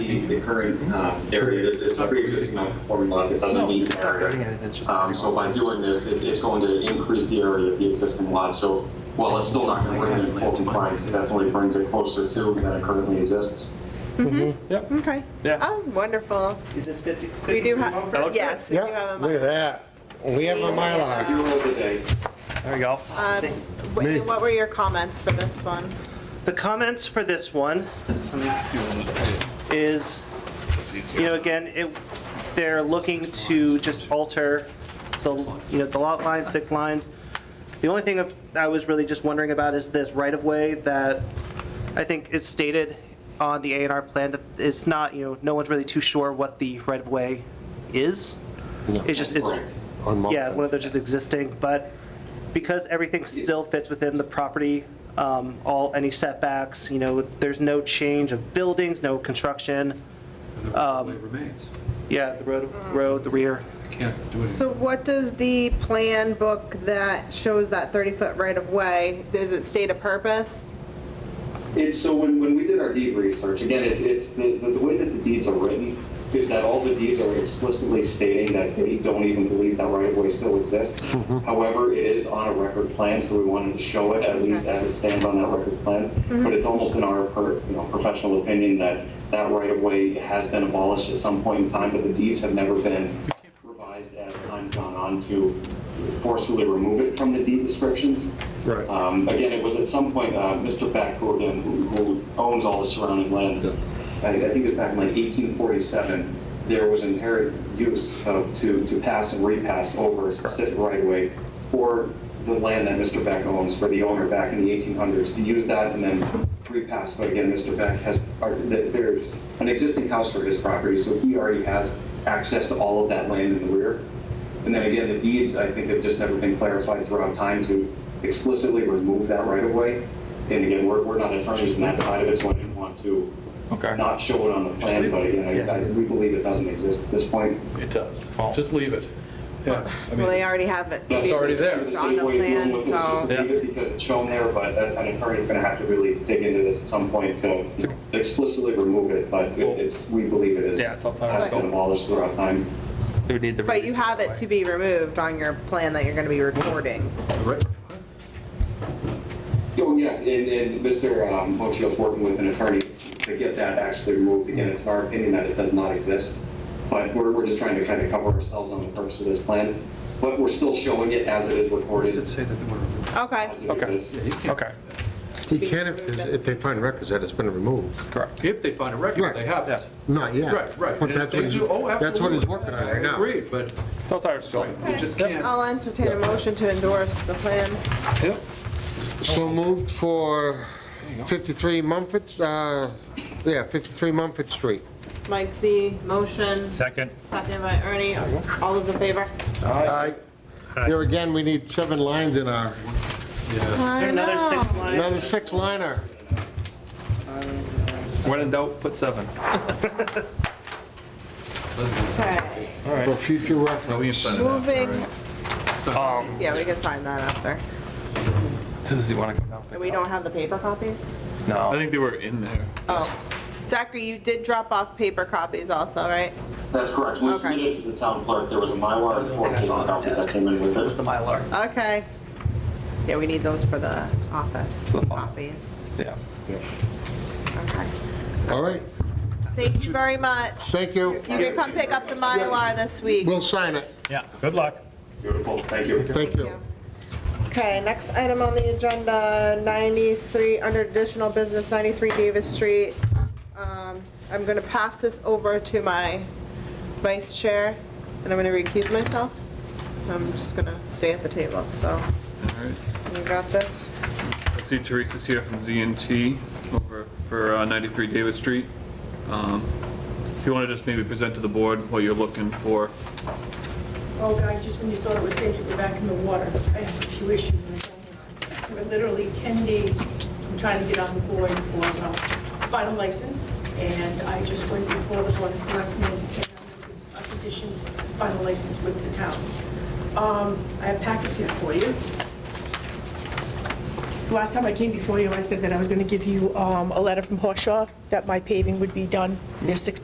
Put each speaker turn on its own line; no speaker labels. the the current um, area, it's it's a pre-existing non-conforming lot, it doesn't need an
cutting
area.
it, it's just-
Um, So by doing this, it- it's going to increase the area of the existing lot, so while it's still not going to bring it in full compliance, it definitely brings it closer to than it currently exists.
Yep.
Okay.
Yeah.
Oh, wonderful.
Is this 50?
We do
52
have,
That looks
yes, we do
Yeah,
have
look at
a,
that. We have a
I
Mylar.
do know today,
There you go.
um, what-
Me.
what were your comments for this one?
The comments for this one is, you know, again, it, they're looking to just alter, so, you know, the lot line, six lines. The only thing of- I was really just wondering about is this right-of-way that I think is stated on the A and R plan that it's not, you know, no one's really too sure what the right-of-way is. It's just, it's,
Correct.
on
yeah, one of
Mulberry.
those just existing, but because everything still fits within the property, um, all, any setbacks, you know, there's no change of buildings, no construction.
The
Um,
roadway remains.
Yeah, the road, road, the rear.
You can't do anything.
So what does the plan book that shows that 30-foot right-of-way, does it state a purpose?
It's, so when, when we did our deed research, again, it's, it's, the, the way that the deeds are written is that all the deeds are explicitly stating that they don't even believe that right-of-way still exists. However, it is on a record plan, so we wanted to show it at least as it stands on that record plan. But it's almost in our, per- you know, professional opinion that that right-of-way has been abolished at some point in time, but the deeds have never been revised as time's gone on to forcefully remove it from the deed descriptions.
Right.
Um, Again, it was at some point, uh, Mr. Beck, who again, who- who owns all the surrounding land, I I think it was back in like 1847, there was inherent use of, to, to pass and repass over a specific right-of-way for the land that Mr. Beck owns, for the owner back in the 1800s, to use that and then repass. But again, Mr. Beck has, or th- there's an existing house for his property, so he already has access to all of that land in the rear. And then again, the deeds, I think have just never been clarified throughout time to explicitly remove that right of way. And again, we're, we're not attorneys on that side of it, so I didn't want to
Okay.
not show it on the plan, but again, I- I, we believe it doesn't exist at this point.
It does.
Well-
Just leave it. Yeah. I mean,
Well, they
it's-
already have it.
It's already there.
It's
The
on
same
the
way you're
plan,
looking, it's just
so,
Yeah.
leave it Because it's shown there, but that- an attorney's gonna have to really dig into this at some point to explicitly remove it, but it- it's, we believe it is.
Yeah, it's outside our
Has been
scope.
abolished throughout time.
We would need to
but you
release
have it to be removed on your plan that you're going to be recording.
Right.
Oh, yeah, and, and Mr. um, Mochio's working with an attorney to get that actually removed. Again, it's our opinion that it does not exist, but we're, we're just trying to kind of cover ourselves on the purpose of this plan. But we're still showing it as it is
Or does
recorded.
it say that they want to?
Okay.
as it
Okay.
exists.
Yeah, you can't.
Okay,
He can if, if they find records that it's been removed.
correct.
If they find a record, they have it.
Not yet.
Right, right.
But
And
that's
they
what he's,
do- oh,
that's what he's
absolutely.
working on right
I
now.
agree, but
It's outside our scope.
you just can't.
I'll entertain a motion to endorse the plan.
Yep.
So moved for 53 Mumford, uh, yeah, 53 Mumford Street.
Mike Z, motion,
Second.
seconded by Ernie. All those in favor?
Aye. Here again, we need seven lines in our,
I
Is there another
know.
six line?
another six liner.
When in doubt, put seven.
Okay,
For future reference.
moving,
Um,
yeah, we can sign that after.
so does he want to go down?
And we don't have the paper copies?
No.
I think they were in there.
Oh, Zachary, you did drop off paper copies also, right?
That's correct. We
Okay.
submitted to the town clerk. There was a Mylar and four paper copies that came in with
That was the
it.
Mylar.
Okay. Yeah, we need those for the office
the file.
copies.
Yeah.
Okay.
All right,
Thank you very much.
thank you.
You can come pick up the Mylar this week.
We'll sign it.
Yeah, good luck.
Beautiful, thank you.
Thank you.
Okay, next item on the agenda, 93, under additional business, 93 Davis Street. Um, I'm going to pass this over to my vice chair, and I'm going to recuse myself. I'm just going to stay at the table, so
All right.
you got this?
I see Teresa's here from ZNT over for uh, 93 Davis Street. Um, If you want to just maybe present to the board what you're looking for.
Oh, guys, just when you thought it was safe to go back in the water, I have a few issues. We're literally 10 days from trying to get on the board for a final license, and I just went before the board of selectmen and came out with a condition final license with the town. Um, I have packets here for you. The Last time I came before you, I said that I was going to give you um, a letter from Horshaw that my paving would be done. There's six